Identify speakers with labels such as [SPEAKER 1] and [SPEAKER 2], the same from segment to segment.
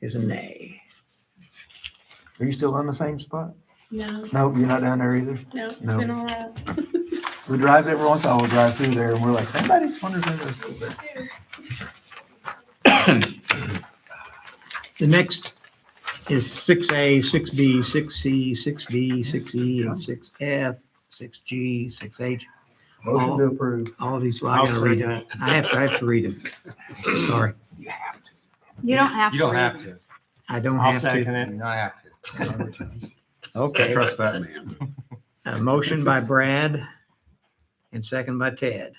[SPEAKER 1] is a nay.
[SPEAKER 2] Are you still on the same spot?
[SPEAKER 3] No,
[SPEAKER 2] No, you're not down there either.
[SPEAKER 3] no, it's
[SPEAKER 2] No.
[SPEAKER 3] been a while.
[SPEAKER 2] We drive every once in a while, we drive through there and we're like, somebody's wondering if there's still there.
[SPEAKER 1] The next is six A, six B, six C, six D, six E, and six F, six G, six H.
[SPEAKER 2] Motion to approve.
[SPEAKER 1] All of these, well, I gotta read them. I have, I have to read them. Sorry,
[SPEAKER 4] You don't have to.
[SPEAKER 5] You don't
[SPEAKER 4] read
[SPEAKER 5] have
[SPEAKER 4] it.
[SPEAKER 5] to.
[SPEAKER 1] I don't
[SPEAKER 6] I'll
[SPEAKER 1] have to.
[SPEAKER 6] second
[SPEAKER 5] You
[SPEAKER 6] it.
[SPEAKER 5] don't have to.
[SPEAKER 1] Okay,
[SPEAKER 7] Trust that man.
[SPEAKER 1] a motion by Brad and second by Ted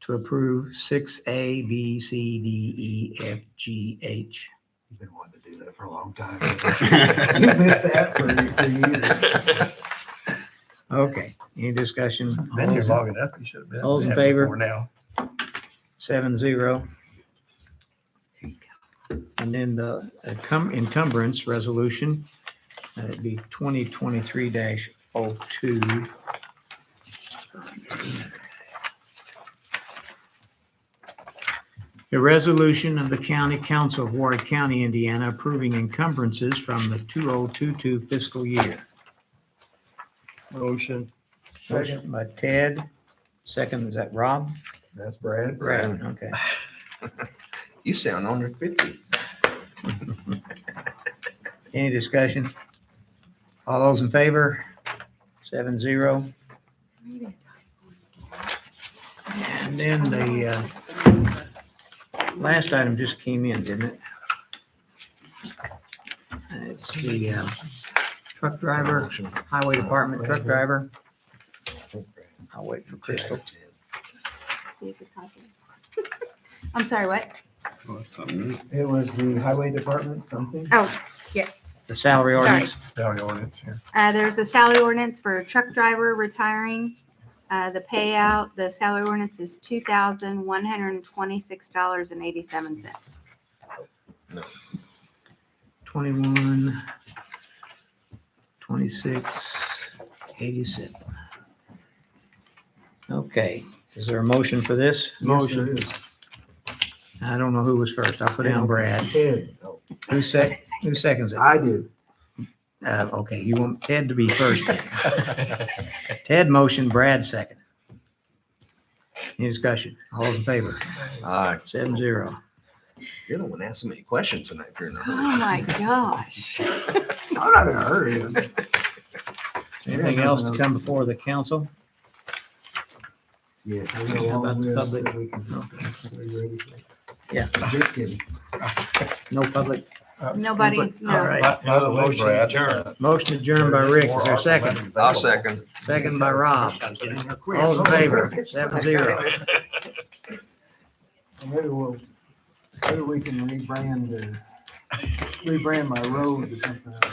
[SPEAKER 1] to approve six A, B, C, D, E, F, G, H.
[SPEAKER 2] You've been wanting to do that for a long time. You missed that for, for years.
[SPEAKER 1] Okay, any discussion?
[SPEAKER 6] Been here long enough. You should have been.
[SPEAKER 1] All's in
[SPEAKER 6] happy
[SPEAKER 1] favor?
[SPEAKER 6] before Now.
[SPEAKER 1] seven zero. And then the encum- encumbrance resolution, that'd be twenty twenty-three dash oh two. A resolution of the County Council of Warwick County, Indiana approving encumbrances from the two oh two two fiscal year.
[SPEAKER 6] Motion.
[SPEAKER 2] Second,
[SPEAKER 1] Motion by Ted, second, is that Rob?
[SPEAKER 2] that's Brad.
[SPEAKER 1] Okay.
[SPEAKER 5] You sound under fifty.
[SPEAKER 1] Any discussion? All those in favor? Seven zero. And then the uh, last item just came in, didn't it? It's the uh, truck driver, highway department truck driver. I'll wait for Crystal.
[SPEAKER 4] See if it's typing. I'm sorry, what?
[SPEAKER 2] It was the highway department, something?
[SPEAKER 4] Oh, yes.
[SPEAKER 1] The salary
[SPEAKER 4] Sorry.
[SPEAKER 1] ordinance.
[SPEAKER 6] Salary ordinance here.
[SPEAKER 4] Uh, there's a salary ordinance for a truck driver retiring. Uh, the payout, the salary ordinance is two thousand one hundred and twenty-six dollars and eighty-seven cents.
[SPEAKER 1] 21, 26, 87. Okay, is there a motion for this?
[SPEAKER 2] Motion.
[SPEAKER 1] I don't know who was first. I'll put down Brad.
[SPEAKER 2] Ted. Oh,
[SPEAKER 1] Who sec, who seconds it?
[SPEAKER 2] I did.
[SPEAKER 1] Uh, okay, you want Ted to be first. then. Ted motion, Brad second. Any discussion? All those in favor?
[SPEAKER 5] Aye.
[SPEAKER 1] Seven zero.
[SPEAKER 5] You're the one asking me questions tonight, if you're in a hurry.
[SPEAKER 4] Oh, my gosh.
[SPEAKER 1] Uh,
[SPEAKER 2] I'm not in a hurry.
[SPEAKER 1] Anything else to come before the council?
[SPEAKER 2] Yes. I
[SPEAKER 1] Yeah,
[SPEAKER 2] know all
[SPEAKER 1] about the
[SPEAKER 2] this
[SPEAKER 1] public.
[SPEAKER 2] that we can discuss. Are you ready for it?
[SPEAKER 1] Yeah.
[SPEAKER 2] Just kidding.
[SPEAKER 1] No public?
[SPEAKER 4] Nobody,
[SPEAKER 1] All
[SPEAKER 4] no.
[SPEAKER 1] right.
[SPEAKER 6] By by the
[SPEAKER 7] Motion
[SPEAKER 6] motion, adjourn.
[SPEAKER 7] adjourned.
[SPEAKER 1] Motion adjourned by Rick. Is there a second?
[SPEAKER 5] I'll second.
[SPEAKER 1] Second by Rob. All in favor? Seven zero.
[SPEAKER 2] Maybe we'll, maybe we can rebrand, uh, rebrand my road to something else.